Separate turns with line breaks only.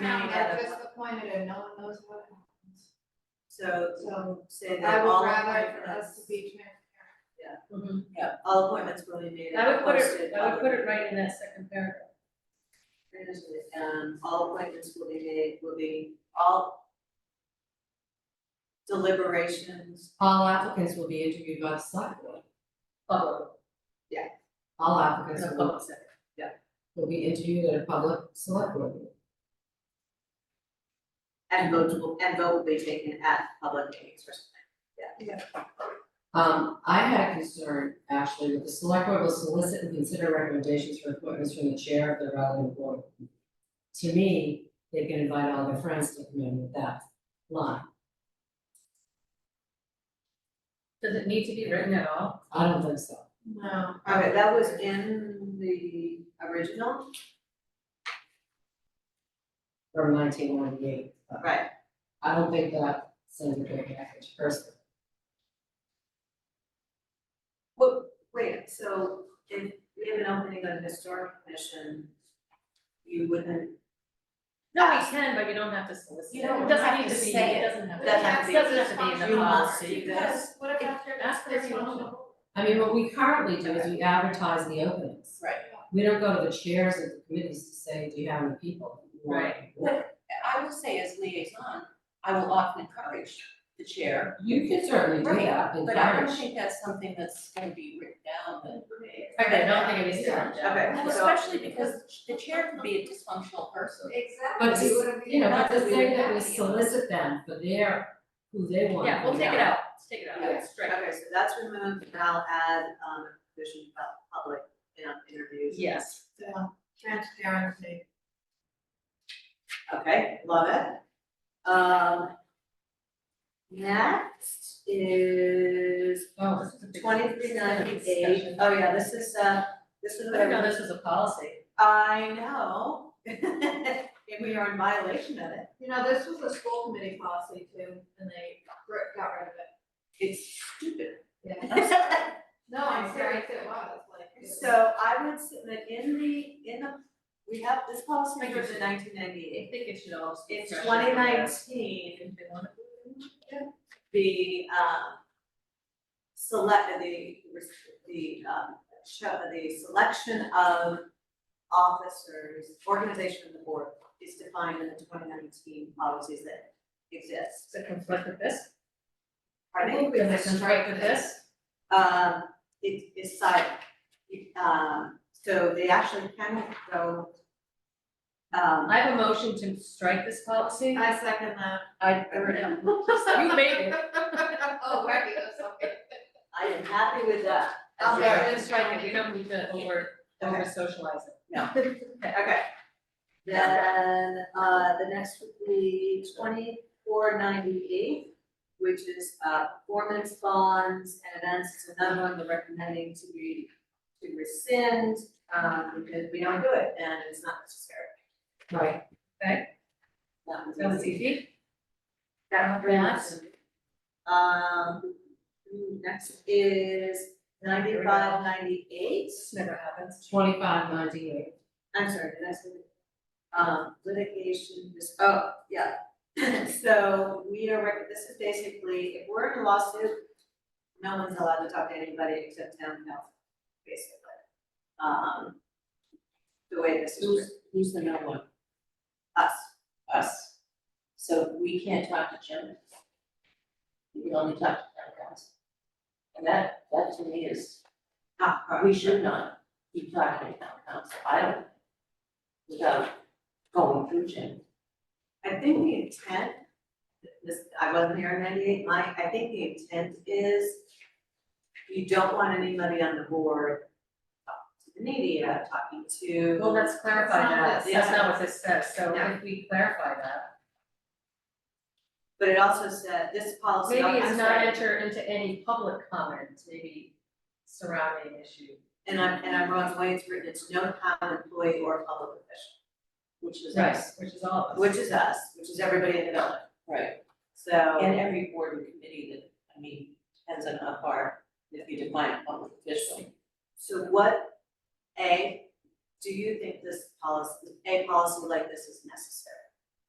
Now,
Yeah.
they're just appointed and no one knows what happens.
So
So
say
I
that all
would rather for us
appointments,
to be transparent.
yeah, all appointments will be made
I would
and
put it,
Mm-hmm. posted.
I would put it right in that second paragraph.
publicly. Um, all appointments will be made, will be all deliberations,
All applicants will be interviewed by the select board.
Public.
All
no
applicants will,
public sector.
will be interviewed at a public select board meeting.
And vote will, and vote will be taken at public meetings or something.
Um, I had a concern, actually, that the select board will solicit and consider recommendations for appointments from the chair of the relevant board. To me, they can invite all their friends to come in with that line.
Does it need to be written at all?
I don't think so.
No.
Okay, that was in the original,
From nineteen ninety-eight, but
right,
I don't think that sends a good message personally.
wait, so if we have an opening on the historic commission, you wouldn't,
No, we can, but you don't have to solicit.
You don't
It doesn't
have
need
to
be-
say
It doesn't have to.
Doesn't have to be-
doesn't have to be in the
You must
policy.
do this.
Because what if after
Ask for
this
it.
one?
I mean, what we currently do is we advertise the openings.
Right.
We don't go to the chairs of the committees to say, do you have any people? you want?"
Right.
I will say as liaison, I will often encourage the chair.
You can certainly do that, encourage.
But I don't think that's something that's gonna be written down, but.
Okay, I don't think it needs to. be written down.
okay,
Well,
so-
especially because the chair could be a dysfunctional person.
Exactly.
But
It
to,
wouldn't be-
you know,
not
but the
that we
thing
would
that we
have to.
solicit them for their, who they want.
Yeah, we'll
to
take it
know.
out, let's take it out,
Yeah.
That's straight.
Okay, so that's removed, and I'll add, um, a provision about public, you know, interviews.
Yes.
Yeah, Transparency.
Okay, love it. Um, next is
Oh, this is a big.
twenty-three ninety-eight.
discussion.
Oh, yeah, this is, uh, this is
I didn't know
whatever,
this was a policy.
I know. And we are in violation of it.
You know, this was a school committee policy too, and they gr- got rid of it.
It's stupid.
Yeah. No, I'm serious, it was like. it was-
So I would submit in the, in the, we have, this policy was in nineteen ninety-eight.
I think it should all just be.
It's
fresh.
twenty nineteen.
If they want
the um select, the the um show, the selection of officers, organization of the board is defined in the twenty nineteen policies that exist.
to conflict with this,
I think we
does it conflict with this?
um, it is side, um, so they actually can go um,
I have a motion to strike this policy.
I second that.
I, I read them.
You made it.
Oh, right, that's okay.
I am happy with that.
I'll
Yeah,
get
we strike it, we don't need to over, over socialize it.
Okay. Then, uh, the next would be twenty-four ninety-eight, which is, uh, performance bonds and events, it's another one they're recommending to be, to rescind, um, because we don't do it and it's not necessary.
Right,
That was
That was easy.
That one was- Um, next is ninety-five ninety-eight,
This never happens.
twenty-five ninety-eight.
I'm sorry, did I say? Um, litigation, this, oh, yeah. So we are, rec- this is basically, if we're in a lawsuit, no one's allowed to talk to anybody except town council, basically. Um, the way this is
Who's,
written,
who's the no one?
us,
Us. So we can't talk to Jim. We can only talk to town council. And that, that to me is,
not her.
we should not keep talking to town council. I don't, without going through Jim.
I think the intent, this, I wasn't here in ninety-eight, my, I think the intent is you don't want anybody on the board talking to the media, talking to.
Well, let's clarify
That's not
that,
this.
that's not what this says, so
Yeah.
if we clarify that.
But it also said, this policy,
Maybe
I'm
it's not
sorry,
enter into any public comment, maybe surrounding issue.
and I'm, and I'm wrong, the way it's written, it's no town employee or public official. Which is
Right,
us,
which is all of us.
which is us, which is everybody in the building,
Right.
so,
And every board and committee that, I mean, depends on how far, if you define a public official.
so what, A, do you think this policy, a policy like this is necessary?